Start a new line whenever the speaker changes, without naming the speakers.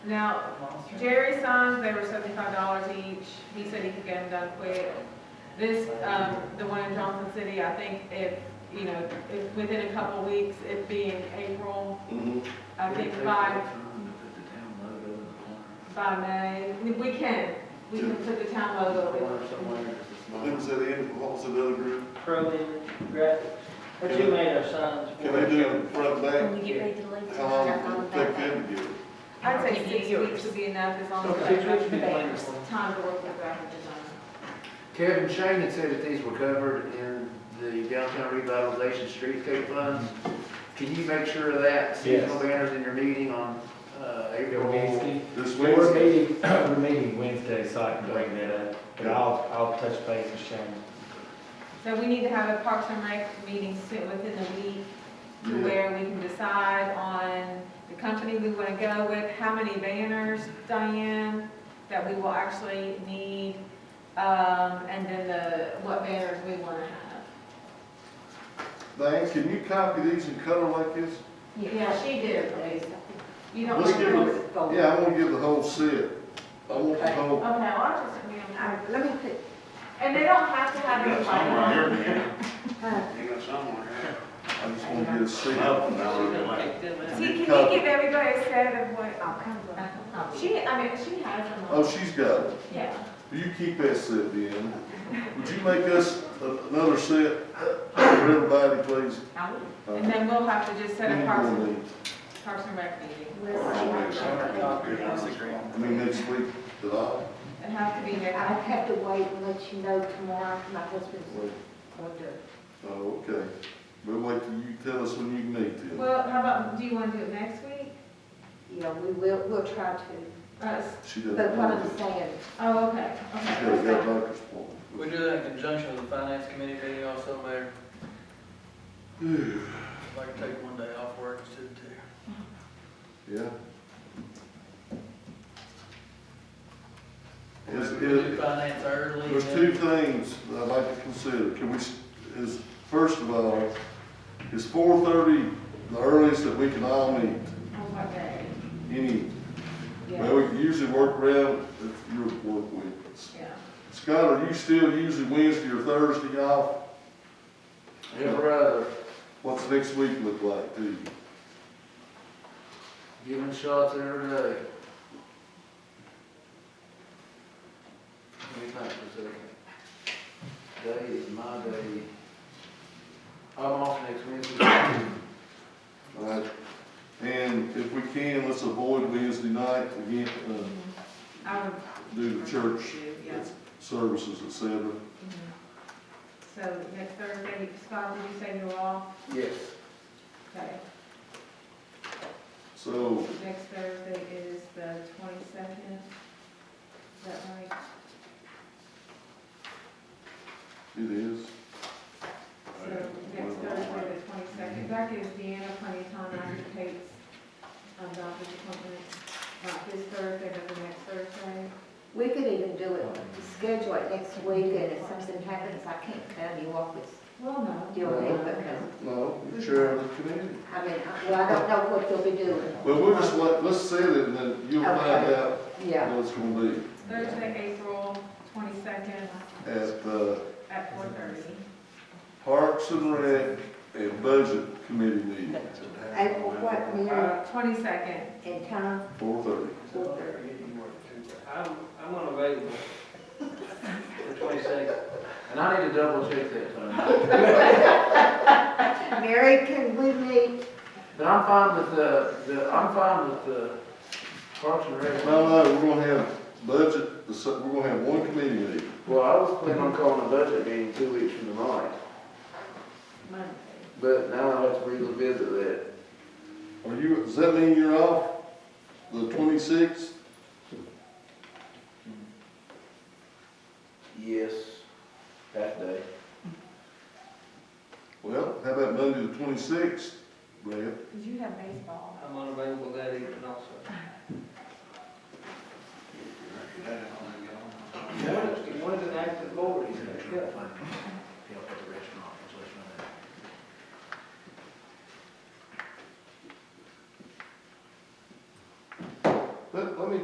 Now, Jerry signs, they were seventy-five dollars each, he said he could get them done quick. This, um, the one in Johnson City, I think if, you know, if within a couple weeks, it being April,
Mhm.
I think by,
Time to put the town logo in the corner.
by May, we- we can, we can put the town logo. in.
Corner somewhere, it's a
Who
small-
was that in, what was another group?
Pro Image Graphics, what you made our signs for.
Can they do it front and
When we get ready to leave,
back?
just
How
jump on
long
the
did it take
back.
them to get it?
I'd say
Give
six
you
weeks
yours.
would be enough, as long as.
Okay, six
everybody
weeks would be
prepares.
wonderful.
Time to work with graphic design.
Kevin Shane had said that these were covered in the downtown revitalization streetscape funds. Can you make sure of that? Seasonal banners in your meeting on, uh, April.
This
We're
Wednesday?
meeting, we're meeting Wednesday, so I can bring that up, but I'll, I'll touch base with Shane.
So we need to have a Parks and Rec meeting soon, within the week, to
Yeah.
where we can decide on the company we want to go with, how many banners, Diane, that we will actually need, um, and then the, what banners we want to have.
Diane, can you copy these in color like this?
Yeah, she did, Lisa. You don't.
Let's
want
give
to-
them, yeah, I want to give the whole set. I want the whole.
Okay, well, I'll just, I mean, I-
Let me put,
and they don't have to have any lighting.
here, man.
huh,
You got somewhere.
I just want to get a set.
See, can you give everybody a set of what, Uh,
I'll come with it.
she, I mean, she has them all.
Oh, she's got it.
Yeah.
You keep that set then. Would you make us a- another set for everybody, please? Uh,
I will.
And then we'll have to just set a Parks
Any more
and,
than-
Parks and Rec meeting.
Let's see.
I mean, next week, that I,
It has to be
I'd
here.
have to wait and let you know tomorrow, my husband's
wait.
going to.
oh, okay. But wait till you tell us when you can meet then.
Well, how about, do you want to do it next week?
Yeah, we will, we'll try to,
Uh,
She
but
doesn't
what
know.
I'm saying,
Oh, okay, okay.
She's got a doctor's appointment.
We do that in conjunction with the finance committee meeting also, Mayor. If I could take one day off work instead of two.
Yeah. Is,
Maybe we do
is,
finance early.
there's two things that I'd like to consider. Can we, s- is, first of all, is four thirty the earliest that we can all meet?
On what day?
Any,
yeah.
well, we can usually work around if your work week.
Yeah.
Scott, are you still usually Wednesday or Thursday off?
Every other,
What's next week look like to you?
giving shots every day. Let me think for a second. Day is my day. I'm off next Wednesday.
All right. And if we can, let's avoid Wednesday night again, uh,
Mm-hmm. I would.
do the church
Yeah.
services, et cetera.
Mhm. So next Thursday, Scott, did you say you're off?
Yes.
Okay,
So,
next Thursday is the twenty-second. Is that right?
it is.
So next Thursday, the twenty-second, that gives Deanna plenty of time after Kate's, um, doctor's appointment. Not this Thursday, but the next Thursday.
We could even do it, schedule it next week, and if something happens, I can't come, you always
Well, no.
deal with it, because,
No, you're chair of the committee.
I mean, I- well, I don't know what they'll be doing,
But we'll just let, let's set it and then you'll find
Okay.
out
yeah.
what it's gonna be
Thursday, April twenty-second
at the
at four thirty.
Parks and Rec and Budget Committee meeting,
April, what, Mary
Uh, twenty-second,
and Tom,
four thirty.
four thirty.
I'm, I'm unavailable for twenty-six.
And I need to double check that time.
Mary, can we meet,
But I'm fine with the, the, I'm fine with the Parks and Rec.
No, no, we're gonna have budget, the se- we're gonna have one committee meeting.
Well, I was planning on calling a budget meeting two weeks from tonight,
Monday?
but now I have to revisit that.
Are you, does that mean you're off the twenty-sixth?
Yes, that day.
Well, how about Monday the twenty-sixth, Brad?
because you have baseball.
I'm unavailable that evening also.
One is an active board. let, let me